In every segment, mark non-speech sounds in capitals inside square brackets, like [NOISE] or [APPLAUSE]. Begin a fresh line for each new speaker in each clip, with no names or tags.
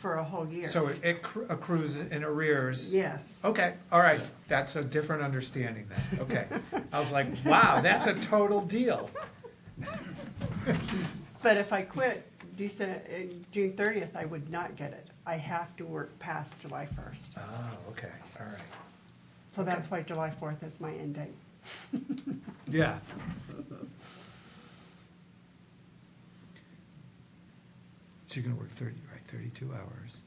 for a whole year.
So it accru- accrues in arrears?
Yes.
Okay, all right, that's a different understanding then, okay. I was like, wow, that's a total deal.
But if I quit December, June thirtieth, I would not get it. I have to work past July first.
Oh, okay, all right.
So that's why July fourth is my end date.
Yeah. So you're gonna work thirty, right, thirty-two hours?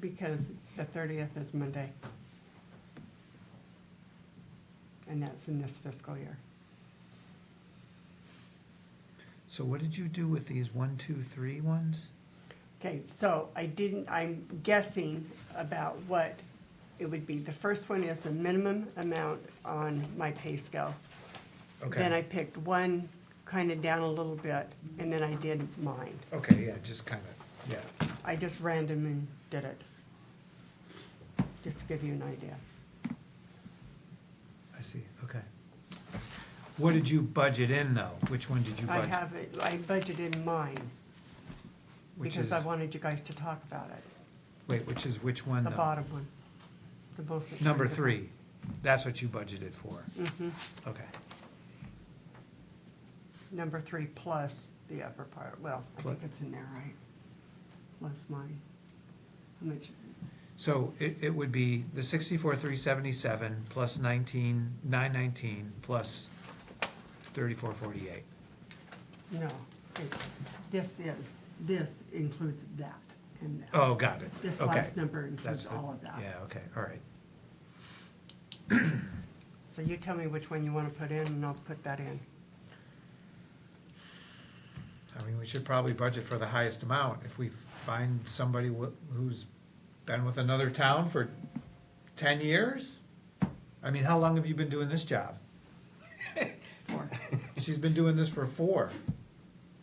Because the thirtieth is Monday. And that's in this fiscal year.
So what did you do with these one, two, three ones?
Okay, so I didn't, I'm guessing about what it would be. The first one is the minimum amount on my pay scale. Then I
Okay,
picked one kind of down a little bit, and then I did mine.
okay, yeah, just kind of, yeah.
I just randomly did it. Just to give you an idea.
I see, okay. What did you budget in, though? Which one did you
I
budget?
have, it. I budgeted mine,
Which
because I
is-
wanted you guys to talk about it,
Wait, which is which one,
the
though?
bottom one, the most.
Number
expensive
three, that's what you budgeted for?
one. Mhm.
Okay,
Number three plus the upper part, well, I
Plus-
think it's in there, right? Plus mine. How much,
so it, it would be the sixty-four, three seventy-seven, plus nineteen, nine nineteen, plus thirty-four, forty-eight.
no, it's, this is, this includes that and that.
Oh, got it, okay.
This last number
That's
includes
the-
all of that.
Yeah, okay, all right.
So you tell me which one you want to put in, and I'll put that in.
I mean, we should probably budget for the highest amount. If we find somebody wh- who's been with another town for ten years? I mean, how long have you been doing this job? [LAUGHS]
Four.
She's been doing this for four,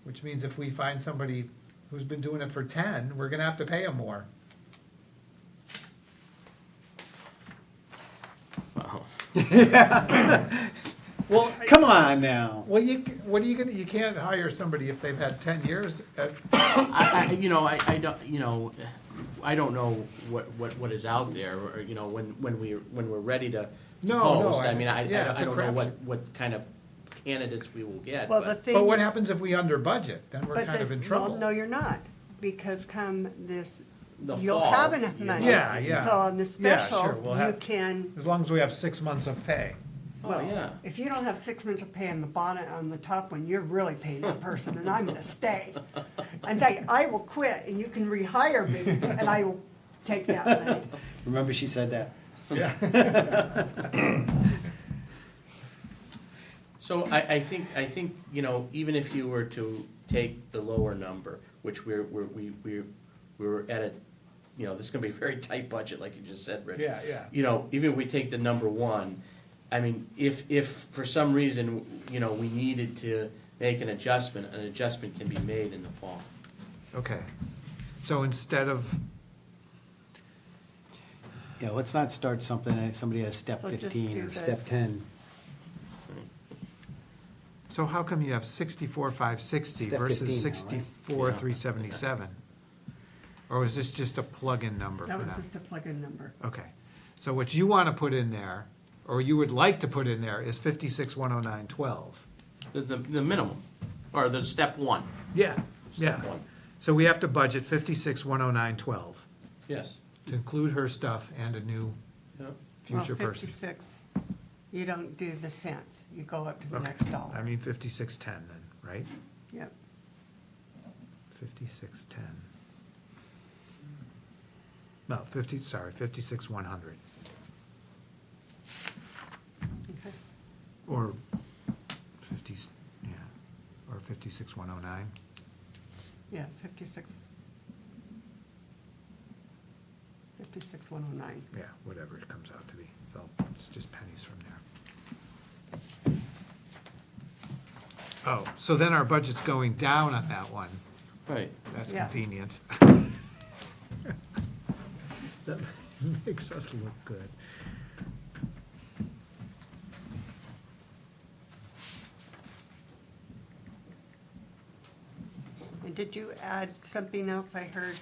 which means if we find somebody who's been doing it for ten, we're gonna have to pay them more. Well, I-
Come on now.
well, you, c- what are you gonna, you can't hire somebody if they've had ten years uh, at,
I, I, you know, I, I don't, you know, I don't know what, what, what is out there, or, you know, when, when we, when we're ready to
No, no,
post, I
I-
mean, I, I
yeah,
don't-
it's
I
a
don't know what,
crapshoot.
what kind of candidates we will get,
Well, the
but,
thing.
but what happens if we under budget? Then we're
but
kind
the-
of in
well,
trouble.
No, you're not, because come this,
The
you'll
fall,
have enough
you
money.
know.
Yeah, yeah.
So on the
Yeah, sure,
special,
we'll
you
have-
can,
As long as we have six months of pay.
Oh,
well,
yeah.
if you don't have six months of pay on the bottom, on the top one, you're really paying that person, and I'm gonna stay. In
[LAUGHS]
fact, I will quit, and you can rehire me, and I will take that
[LAUGHS]
money.
Remember, she said that.
so I, I think, I think, you know, even if you were to take the lower number, which we're, we're, we, we're, we're at a, you know, this is gonna be a very [LAUGHS] tight budget, like you just said, Rich.
Yeah, yeah.
you know, even if we take the number one, I mean, if, if for some reason, you know, we needed to make an adjustment, an adjustment can be made in the fall.
Okay. So instead of,
Yeah, let's not start something, uh, somebody at step
So just
fifteen
do
or
the-
step ten.
so how come you have sixty-four, five sixty
Step
versus
15 now, right?
sixty-four,
Yeah.
three seventy-seven? Or is this just a plug-in number for
That
them?
was just a plug-in number.
Okay, so what you want to put in there, or you would like to put in there, is fifty-six, one oh nine, twelve.
The, the, the minimum, or the step one,
Yeah, yeah.
one.
So we have to budget fifty-six, one oh nine, twelve,
yes.
to include her stuff and a new
Yep.
Well,
future person.
Fifty-six, you don't do the cents, you go up to the
Okay.
next
I
dollar.
mean fifty-six, ten then, right?
Yep.
Fifty-six, ten. No, fifty, sorry, fifty-six, one hundred,
Okay.
or fifty, yeah, or fifty-six, one oh nine.
Yeah, fifty-six. Fifty-six, one oh nine.
yeah, whatever it comes out to be. So it's just pennies from there. Oh, so then our budget's going down on that one.
Right.
That's
Yeah.
convenient. [LAUGHS] That makes us look good.
And did you add something else I heard